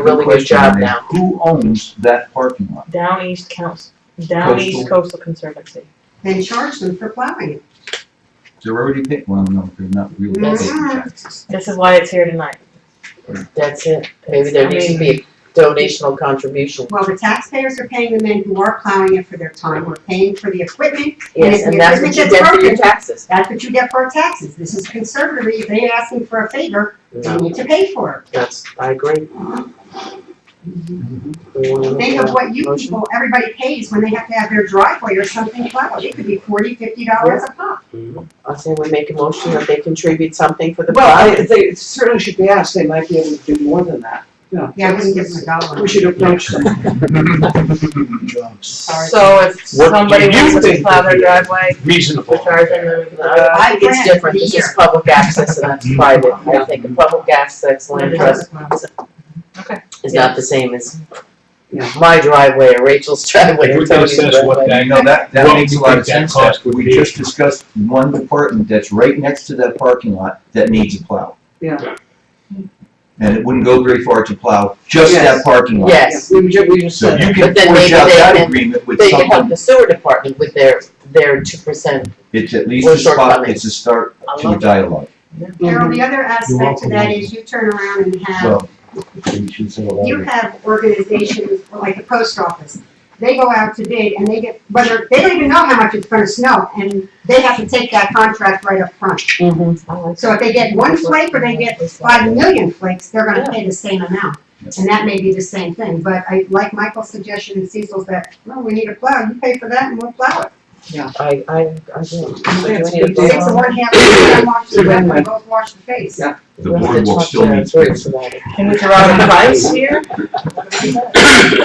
a really good job question is, now. Who owns that parking lot? Down East Council, Down East Coastal Conservancy. and charge them for plowing it. They're already paying, well, no, they're not really paying Yes. taxes. This is why it's here tonight. That's it. Maybe there needs to be a donational contribution. Well, the taxpayers are paying the men who are plowing it for their time, we're paying for the equipment, Yes, and that's what you get for your taxes. that's what you get for our taxes. This is conservatory, if they ask them for a favor, they No, need to pay for that's, I agree. We wanna it. make Think of that what you motion. people, everybody pays when they have to have their driveway or something plowed, it could be forty, fifty dollars a pop. I say we make a motion that they contribute something for the Well, I- project. they certainly should be asked, they might be able to do more than that, you know. Yeah, I wouldn't give them a dollar. We should approach them. Mm-hmm. So if What do somebody you wants to think plow would their be- driveway, reasonable. we're charging them. Uh, I think it's I grant different. This here. is public access and that's private. I think a public access land trust Okay. is not the same as Yeah. my driveway or Rachel's driveway If or we could Tony's assess what driveway. that, You know, that, that Well, makes a you lot of think that sense, cost would we be- just discussed one department that's right next to that parking lot that needs a plow. Yeah. And it wouldn't go very far to plow just that Yes. parking lot. Yes, We ju- we just So said, you that. can But then forge maybe out they that can- agreement with they could help someone, the sewer department with their, their two percent. it's at least Or a spot, shortcomings. it's a start I to a love dialogue, Carol, the other aspect to welcome. that is you turn around and have so. You have organizations like the post office, they go out to bid and they get, whether, they don't even know how much it's gonna snow, and they have to take that contract right up front. So if they get one flake or they get Five million flakes, they're gonna pay the same amount, and that may be the same thing, but I, like Michael's suggestion and Cecil's that, no, we need a plow, you pay for that and we'll plow it. I, I, I do. So do That's we need to good vote Six deal. of on one half, and wash the Yeah. other, both wash the face. Yeah. it? The We have to boardwalk talk still to our needs groups about it. Can we throw out a price here?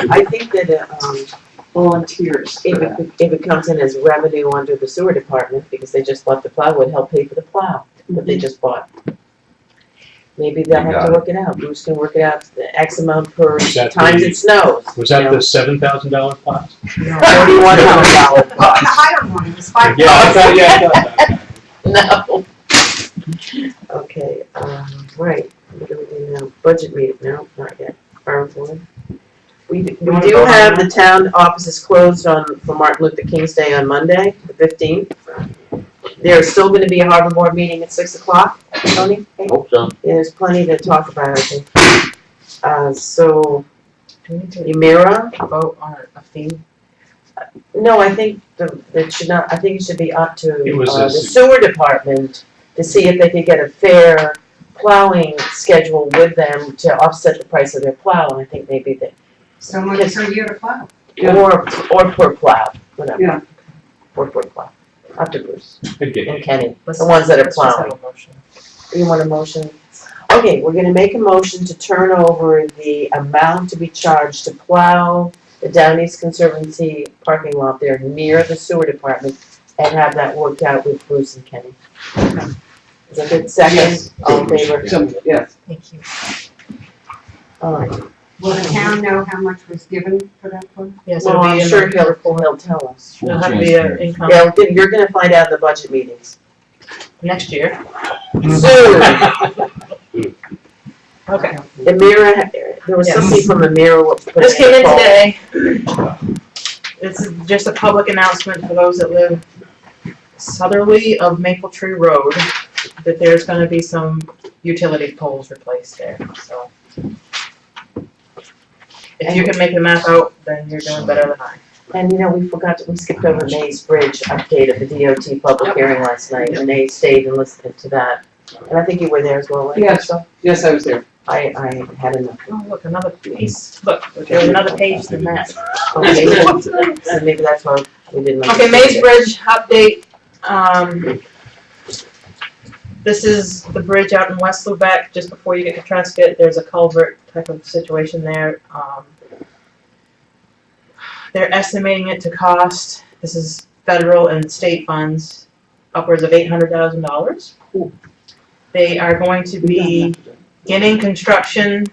I think that, uh, um, volunteers for if that. it, if it comes in as revenue under the sewer department, because they just bought the plow, would help pay for the plow that they just bought. Maybe they'll You have got to work it out, Bruce can work it out, the X amount per Is that times the- it snows. Was that the seven thousand dollar pot? Thirty-one hundred dollars. Well, the higher one is five. Yeah, I thought, yeah, I thought that. No. Okay, um, right, what do we do now? Budget meeting, no, not yet, farm board. We, d- we wanna do vote on have the that? town offices closed on, for Martin Luther King's Day on Monday, the fifteenth. There's still gonna be a harbor board meeting at six o'clock, Tony? Hope so. Yeah, There's plenty to talk about, I think. Uh, so, Do we need to Emira, vote on a fee? no, I think the, it should not, I think it should be up to, It was uh, the a- sewer department to see if they could get a fair plowing schedule with them to offset the price of their plow, and I think maybe they, So much per year to plow. Yeah. or, or per plow, whatever. Yeah. Or per plow, up to Bruce Okay. and Kenny, Let's- the ones that are let's just plowing. have a motion. You want a motion? Okay, we're gonna make a motion to turn over the amount to be charged to plow the Down East Conservancy parking lot there near the sewer department and have that worked out with Bruce and Kenny. Is that good? Second, Yes. all in favor? Some, yes, Thank you. Alright, Will the town know how much was given for that plow? Yes, well, it'll be I'm in sure the he'll, report. he'll tell us. Full It'll have to be an transparency. income Yeah, you're gonna find out in the budget meetings. next year. Soon, Okay. Amira, there was Yes. somebody from Amira. what- This came in today. This is just a public announcement for those that live southerly of Maple Tree Road, that there's gonna be some utility poles replaced there, so. If you can make the math out, then you're doing better than I. And you know, we forgot, we skipped over May's Bridge update of the DOT public hearing last night, and they stayed and listened to that. And I think you were there as well, right? Yes. So yes, I was there. I, I had enough. Oh, look, another piece, look, there's another page than that. Okay, so maybe that's why we didn't. like Okay, to Maze see it. Bridge update, um, this is the bridge out in West Lubeck, just before you get to Trescott, there's a culvert type of situation there, um. They're estimating it to cost, this is federal and state funds, upwards of eight hundred thousand dollars. Ooh. They are going to We don't be have to do it. beginning construction,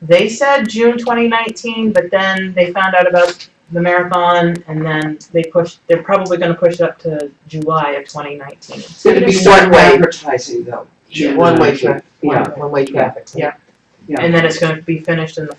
they said June twenty nineteen, but then they found out about the marathon and then they pushed, they're probably gonna push it up to July of twenty nineteen. It's gonna be One some way. advertising though. Yeah, One-way traffic, Yeah. one-way traffic. And then it's gonna be finished in the